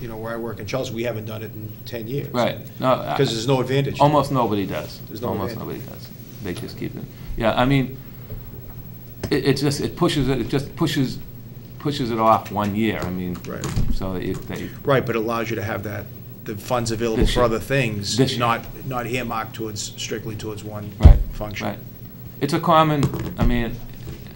you know, where I work in Chelsea, we haven't done it in 10 years. Right. No, I- Because there's no advantage. to it. Almost nobody does. There's no Almost nobody advantage. does. They just keep it. Yeah, I mean, it, it just, it pushes it, it just pushes, pushes it off one year, I mean. Right. So that if they, Right, but it allows you to have that, the funds available This for year. other things, This year. not, not earmarked towards, strictly towards one right. function. right. It's a common, I mean,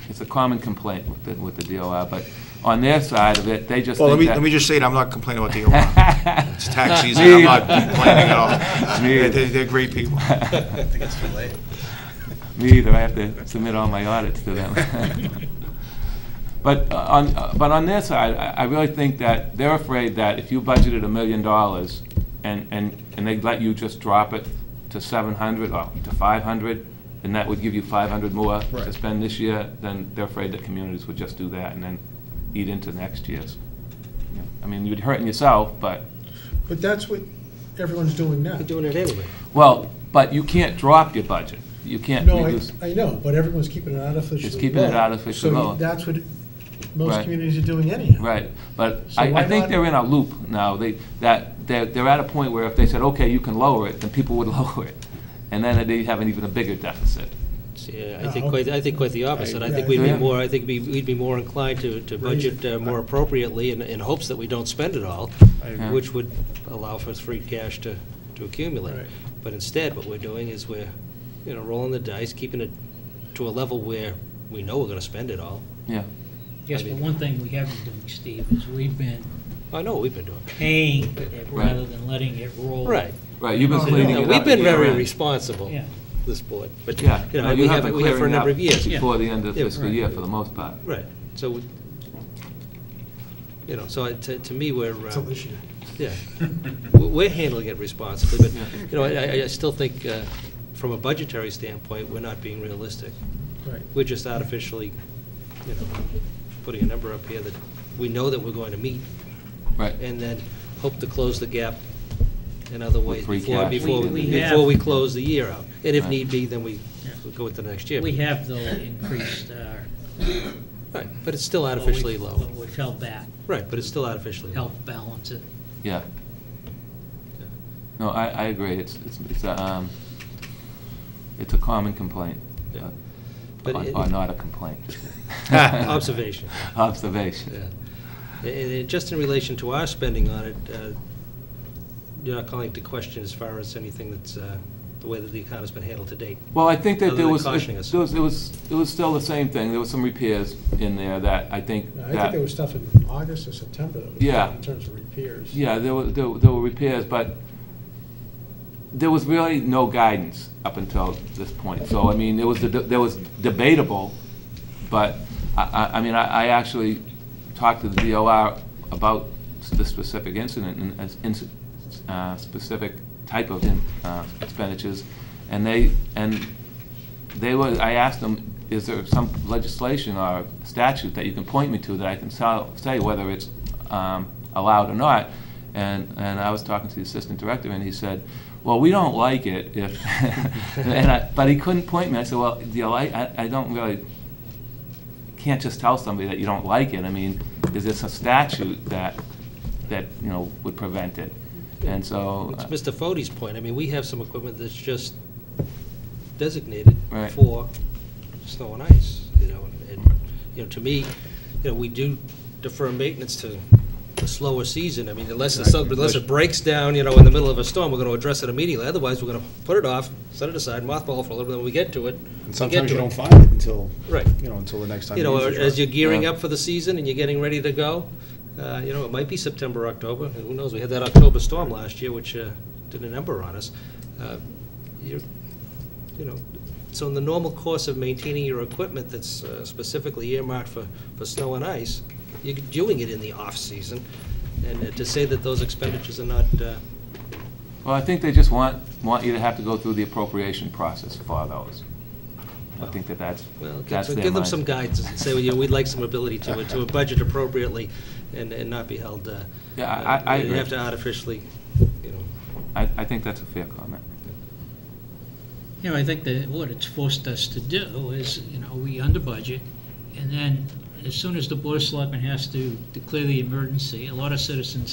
it's a common complaint with the, with the DOR, but on their side of it, they just Well, let think me, that- let me just say it, I'm not complaining about the DOR. It's tax season, I'm not Neither. complaining at all. They're, Neither. they're- they're great people. I think it's too late. Me either, I have to submit all my audits to them. But uh, on, uh, but on their side, I I really think that they're afraid that if you budgeted a million dollars and, and, and they'd let you just drop it to seven hundred or to five hundred, and that would give you five hundred more to Right. spend this year, then they're afraid that communities would just do that and then eat into next year's. Yeah. I mean, you'd hurt yourself, but, But that's what everyone's doing now. They're doing it anyway. well, but you can't drop your budget. You can't No, I, reduce. I know, but everyone's keeping it artificially low. Just keeping it artificially So low. you- that's what Right. most communities are doing anyhow. Right, but So I, I why think not- they're in a loop now, they, that, they're, they're at a point where if they said, okay, you can lower it, then people would lower it. And then they'd have an even a bigger deficit. Yeah, I No. think quite, I think quite the opposite. I think we'd Yeah. be more, I think be- we'd be more inclined to, to Raise it. budget uh, more appropriately in, in hopes that we don't spend it all, agree. which would allow for free cash to, to accumulate. Right. But instead, what we're doing is we're, you know, rolling the dice, keeping it to a level where we know we're gonna spend it all. Yeah, Yes, but one thing we haven't done, Steve, is we've been I know what we've been doing. paying it rather than letting it roll. Right. right, you've been No, cleaning You know, it up. We've been year very end. responsible, Yeah. this board, but, you Yeah, know, no, we you have have, been we have for a clearing number up of years. before the end of Yeah, fiscal right. year for the most part. Right, so, we- you know, so I- to, to me, we're, uh, Until this year. yeah, we- we're handling it responsibly, but, you know, I, I- I still think, uh, from a budgetary standpoint, we're not being realistic. Right. We're just artificially, you know, putting a number up here that we know that we're going to meet, Right, and then hope to close the gap in other ways free before, cash. before, We- we- we have- before we close the year out. And if Right. need be, then we Yeah. we go into the next year. We have, though, increased our. Right, but it's still artificially what low. we- what We've held back, Right, but it's still artificially low. helped balance it. yeah. No, I, I agree, it's, it's, it's a, um, it's a common complaint. Yeah. Or But it- or not a complaint. Observation. Observation. Yeah. And- And just in relation to our spending on it, uh, you're not calling to question as far as anything that's, uh, the way that the economy's been handled to date. Well, I think that Other there than was, uh, there cautioning us. was, it was, it was still the same thing, there was some repairs in there that I think Now, that. I think there was stuff in August or September that was Yeah. done in terms of repairs. Yeah, there were, there were- there were repairs, but there was really no guidance up until this point. So, I mean, it was, deb- there was debatable, but I, I, I mean, I, I actually talked to the DOR about the specific incident and, as inci- uh, specific type of in- uh, expenditures, and they, and they were, I asked them, is there some legislation or statute that you can point me to that I can sell- say whether it's um, allowed or not? And, and I was talking to the assistant director, and he said, well, we don't like it if, and I, but he couldn't point me. I said, well, do you like, I, I don't really, can't just tell somebody that you don't like it. I mean, is this a statute that, that, you know, would prevent it? And so. uh, It's Mr. Fode's point, I mean, we have some equipment that's just designated Right. for snow and ice, you know, and, you know, to me, you know, we do defer maintenance to the slower season, I mean, unless, it's some- unless it breaks down, you know, in the middle of a storm, we're gonna address it immediately, otherwise, we're gonna put it off, set it aside, mothball for a little bit, when we get to it. And we get sometimes to you it. don't find it until, Right. you know, until the next time. You know, use it. as you're gearing Yeah. up for the season and you're getting ready to go, uh, you know, it might be September, October, and who knows, we had that October storm last year, which uh, did a number on us. Uh, You're, you know, so in the normal course of maintaining your equipment that's uh, specifically earmarked for, for snow and ice, you're doing it in the off-season, and uh, to say that those expenditures are not, uh, Well, I think they just want, want you to have to go through the appropriation process for those. I think that that's, well, that's so their give them some mindset. guidance and say, well, you know, we'd like some ability to, to budget appropriately and, and not be held, uh, Yeah, I- I- I uh, You agree. have to artificially, you know, I, I think that's a fair comment. You know, I think that what it's forced us to do is, you know, we under budget, and then as soon as the Board of Selectmen has to declare the emergency, a lot of citizens